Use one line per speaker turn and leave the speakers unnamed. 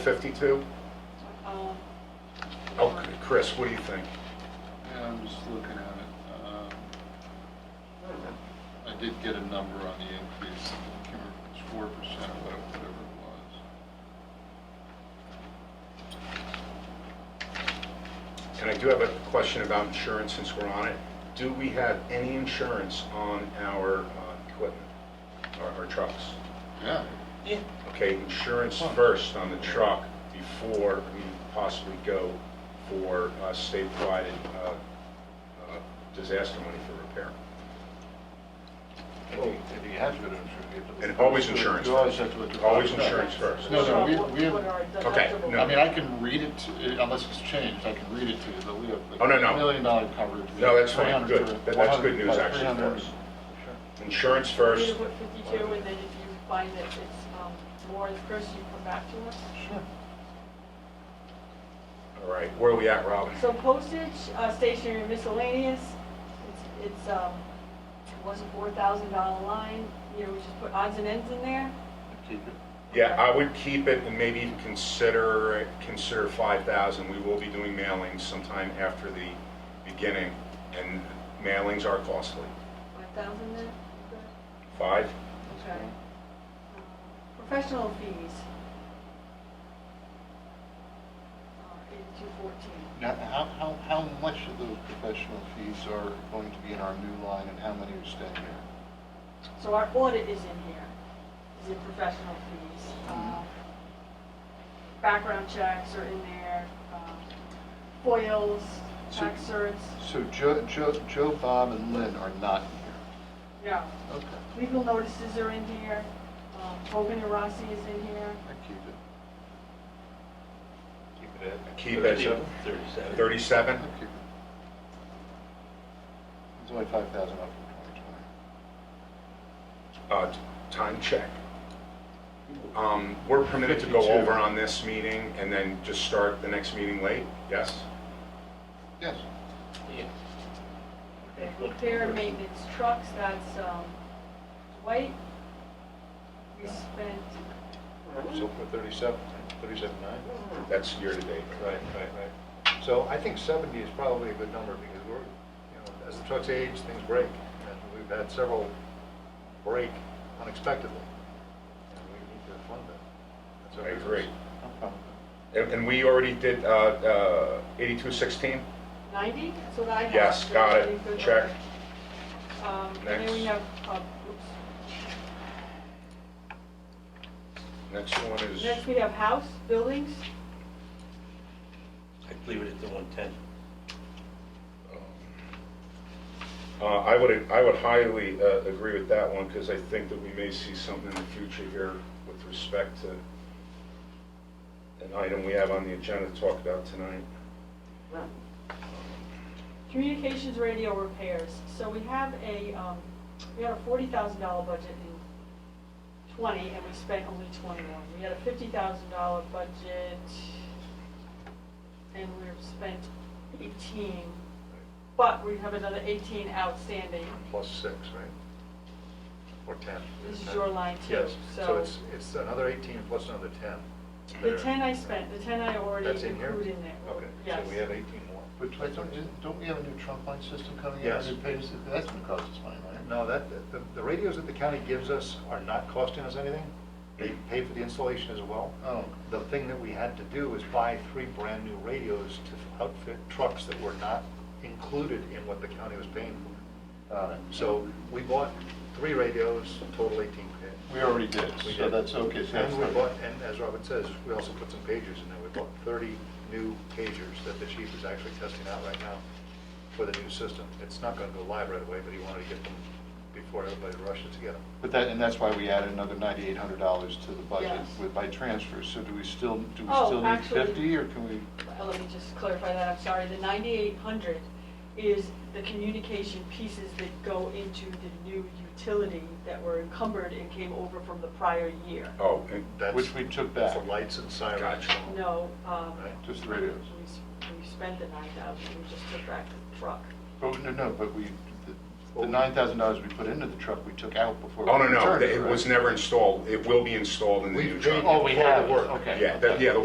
52?
Um,
Oh, Chris, what do you think?
Yeah, I'm just looking at it. Um, I did get a number on the increase, I can't remember if it's four percent or whatever it was.
And I do have a question about insurance since we're on it. Do we have any insurance on our uh, equipment, our- our trucks?
Yeah,
Yeah,
Okay, insurance first on the truck before we possibly go for uh, state-provided uh, uh, disaster money for repair. Oh.
Well, if you have to go to insurance. you have to-
And always insurance
You always
first.
have to. go to-
Always Oh, insurance first.
No, no, we-
What-
we have-
what are
Okay,
deductible-
no.
I mean, I can read it, to- unless it's changed, I can read it to you, but we have like
Oh, no, no.
million dollar coverage. We
No,
have
that's fine,
300
good.
to-
That- That's good
100
news
by
actually for
300.
us. Insurance first,
You put fifty-two, and then if you find that it's, um, more, Chris, you come back to us.
Sure.
all right, where are we at, Robin?
So postage, uh, stationery miscellaneous, it's, it's, um, it was a four thousand dollar line, you know, we just put odds and ends in there.
Keep it.
Yeah, I would keep it and maybe even consider, consider 5,000. We will be doing mailings sometime after the beginning, and mailings are costly.
Five thousand then?
Five?
Okay. Professional fees. Uh, Eighty-two fourteen.
Now, how, how, how much of those professional fees are going to be in our new line and how many are staying here?
So our audit is in here, is in professional fees.
Mm-hmm.
Uh, Background checks are in there, um, foils, tax certs,
So Joe, Joe, Joe, Bob, and Lynn are not here.
no.
Okay,
Legal notices are in here, um, Hogan and Rossi is in here.
I keep it.
Keep it at.
Keep it at
37.
37?
I keep it. It's only five thousand up from twenty twenty.
Uh, Time check. Um, We're permitted to go
52.
over on this meeting and then just start the next meeting late? Yes?
Yes.
Okay, Repair and maintenance trucks, that's um, Dwight. We spent,
So for 37, 37.9?
That's year-to-date.
Right, right, right. So I think 70 is probably a good number because we're, you know, as the trucks age, things break. And we've had several break unexpectedly. And we need to fund that.
I
That's our
agree.
business.
I'm fine with
And and we already did uh, uh, 8216?
90, that's what I have.
Yes, got it.
Good.
Check.
Um, And then we
Next.
have, uh, oops.
Next one is...
Next, we have house, buildings.
I'd leave it at the 110.
Uh, I would, I would highly uh, agree with that one, because I think that we may see something in the future here with respect to an item we have on the agenda to talk about tonight.
Communications radio repairs, so we have a, um, we had a forty thousand dollar budget in twenty, and we spent only twenty-one. We had a fifty thousand dollar budget, and we've spent eighteen, but we have another eighteen outstanding.
Plus six, right? Or 10.
This is your line too,
Yes,
so-
so it's, it's another 18 plus another 10.
The ten I spent, the ten I already
That's in
included in
here?
there.
Okay,
Yes.
so we have 18
it.
more.
But Dwight, don't, you- don't we have a new trunk line system coming in?
Yes.
It pays- That's gonna cost us money, right?
No, that, the, the radios that the county gives us are not costing us anything. They pay for the installation as well.
Oh.
The thing that we had to do was buy three brand-new radios to outfit trucks that were not included in what the county was paying for. Uh, So we bought three radios, total eighteen
We already did,
We
so
did.
that's okay. so that's
And we
not-
bought, and as Robin says, we also put some pagers in there. We bought thirty new pagers that the chief is actually testing out right now for the new system. It's not gonna go live right away, but he wanted to get them before everybody rushes to get them.
But that, and that's why we added another ninety-eight hundred dollars to the budget
Yes.
with, by transfer. So do we still, do we
Oh,
still need
actually-
fifty or can we?
Well, Let me just clarify that, I'm sorry, the 9,800 is the communication pieces that go into the new utility that were encumbered and came over from the prior year.
Oh, and
That's-
Which we took back.
The lights and sirens.
Gotcha.
No, um,
Right.
Just the radios.
we s- we spent the 9,000, we just took back the truck.
Oh, no, no, but we, the- the nine thousand dollars we put into the truck, we took out before.
oh,
we
no, no,
returned
it was
right?
never installed. It will be installed in the new
We've paid
truck.
Oh, we have,
Work.
okay.
Yeah, that- yeah, the